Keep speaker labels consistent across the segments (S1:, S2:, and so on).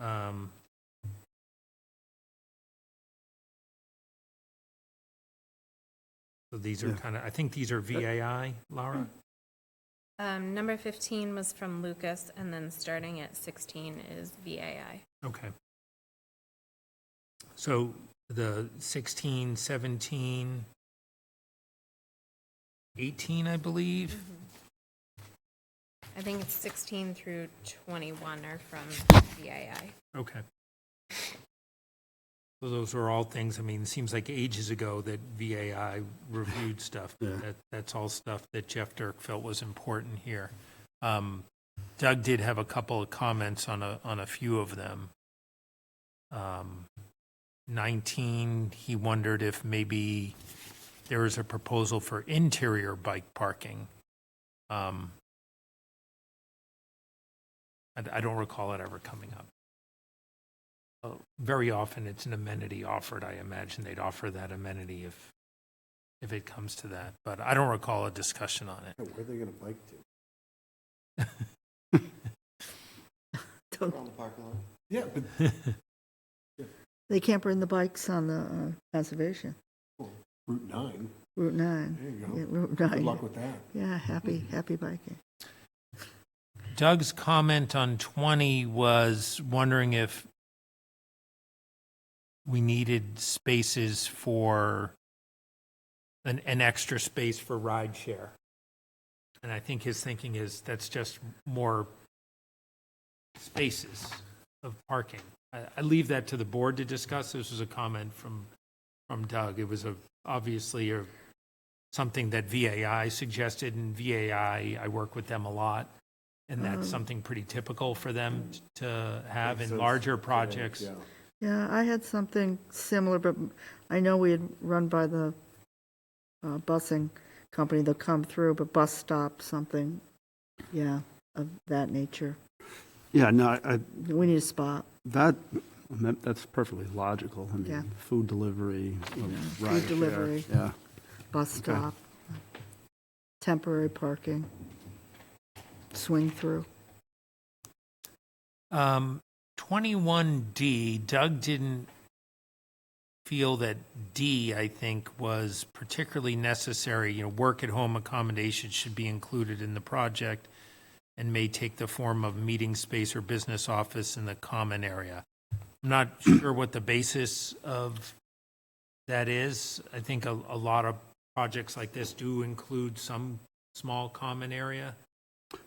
S1: Um, so these are
S2: Yeah.
S1: kind of, I think these are VAI, Laura?
S3: Um, number 15 was from Lucas, and then starting at 16 is VAI.
S1: Okay. So the 16, 17, 18, I believe?
S3: I think it's 16 through 21 are from VAI.
S1: Okay. So those are all things, I mean, it seems like ages ago that VAI reviewed stuff. but
S2: Yeah.
S1: That, that's all stuff that Jeff Dirk felt was important here. Um, Doug did have a couple of comments on a, on a few of them. Um, 19, he wondered if maybe there is a proposal for interior bike parking. Um, I, I don't recall it ever coming up. Uh, Very often, it's an amenity offered. I imagine they'd offer that amenity if, if it comes to that, but I don't recall a discussion on it.
S2: Where are they going to bike to?
S4: Around the parking lot.
S2: Yeah, but
S5: They can't bring the bikes on the uh, conservation,
S2: Route 9,
S5: Route 9.
S2: there you
S5: Yeah,
S2: go.
S5: Route
S2: Good
S5: 9.
S2: luck with Mm-hmm. that.
S5: Yeah, happy, happy biking.
S1: Doug's comment on 20 was wondering if we needed spaces for, an, an extra space for ride share. And I think his thinking is that's just more spaces of parking. I, I leave that to the board to discuss. This was a comment from, from Doug. It was a, obviously a, something that VAI suggested and VAI, I work with them a lot. And
S2: Mm-hmm.
S1: that's something pretty typical for them to have in
S2: Since-
S1: larger projects.
S2: Yeah.
S5: Yeah, I had something similar, but I know we had run by the uh, busing company, they'll come through, but bus stop, something, yeah, of that nature.
S6: Yeah, no, I- I,
S5: We need a spot.
S6: that, that- that's perfectly logical. I
S5: Yeah.
S6: mean, food delivery, ride
S5: delivery.
S6: Yeah,
S5: bus stop, temporary parking, swing through.
S1: Um, 21D, Doug didn't feel that D, I think, was particularly necessary. You know, work at home accommodations should be included in the project and may take the form of meeting space or business office in the common area. I'm not sure what the basis of that is. I think a, a lot of projects like this do include some small common area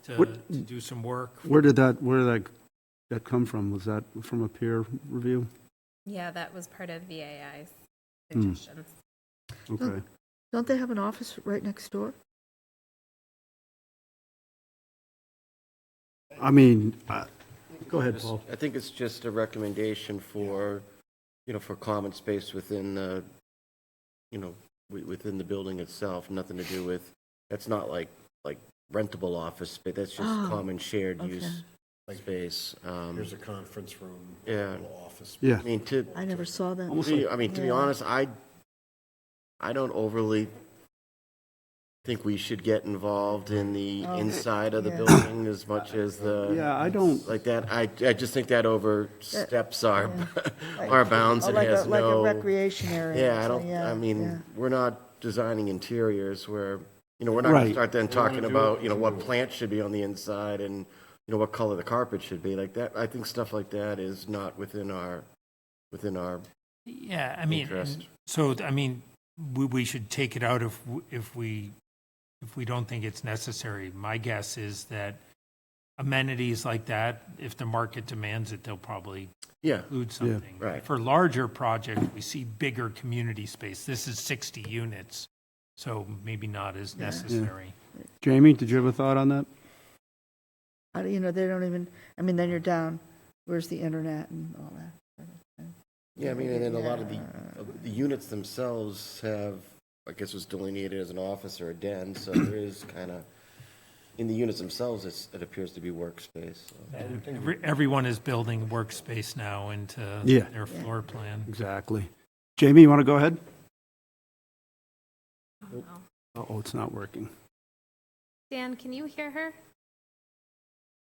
S1: to,
S6: What-
S1: to do some work.
S6: where did that, where did that, that come from? Was that from a peer review?
S3: Yeah, that was part of VAI's
S6: Hmm.
S3: suggestions.
S4: Oh.
S6: Okay,
S5: Don't they have an office right next door?
S6: I mean, I- go ahead,
S4: Just-
S6: Paul.
S4: I think it's just a recommendation for, you know, for common space within the, you know, wi- within the building itself, nothing to do with, that's not like, like rentable office space, that's just
S5: Oh,
S4: common shared use
S5: okay.
S4: space. Um,
S2: Here's a conference room,
S4: Yeah.
S2: little office.
S6: Yeah.
S4: I mean, to,
S5: I never saw that.
S6: Almost
S4: be- I mean, to be
S5: Yeah.
S4: honest, I, I don't overly think we should get involved in the
S5: Oh,
S4: inside of the
S5: yeah.
S4: building as much as the.
S6: Yeah, I don't,
S4: like that, I, I just think that oversteps our,
S5: Like-
S4: our bounds
S5: Oh,
S4: and
S5: like a-
S4: has
S5: Like a
S4: no.
S5: recreation area.
S4: Yeah, I
S5: so,
S4: don't, I
S5: yeah.
S4: mean, we're not designing interiors where, you know, we're not gonna
S6: Right.
S4: start then
S2: They wanna
S4: talking
S2: do
S4: about,
S2: it,
S4: you know,
S2: they
S4: what
S2: do it.
S4: plant should be on the inside and, you know, what color the carpet should be, like that, I think stuff like that is not within our, within our
S1: Yeah, I mean,
S4: interest.
S1: So, I mean, we, we should take it out if, w- if we, if we don't think it's necessary. My guess is that amenities like that, if the market demands it, they'll probably
S4: Yeah,
S1: include something.
S4: right.
S1: For larger projects, we see bigger community space. This is 60 units, so maybe not as necessary.
S6: Jamie, did you have a thought on that?
S5: I don't- You know, they don't even, I mean, then you're down, where's the internet and all that?
S4: yeah, I mean, and then a lot of the,
S5: Yeah.
S4: of the units themselves have, I guess was delineated as an office or a den, so there is kinda, in the units themselves, it's, it appears to be workspace, so.
S1: Every- Everyone is building workspace now into
S6: Yeah.
S1: their floor plan.
S6: Exactly. Jamie, you want to go ahead?
S3: Oh.
S6: Uh-oh, it's not working.
S3: Dan, can you hear her?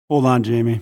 S6: Hold on, Jamie.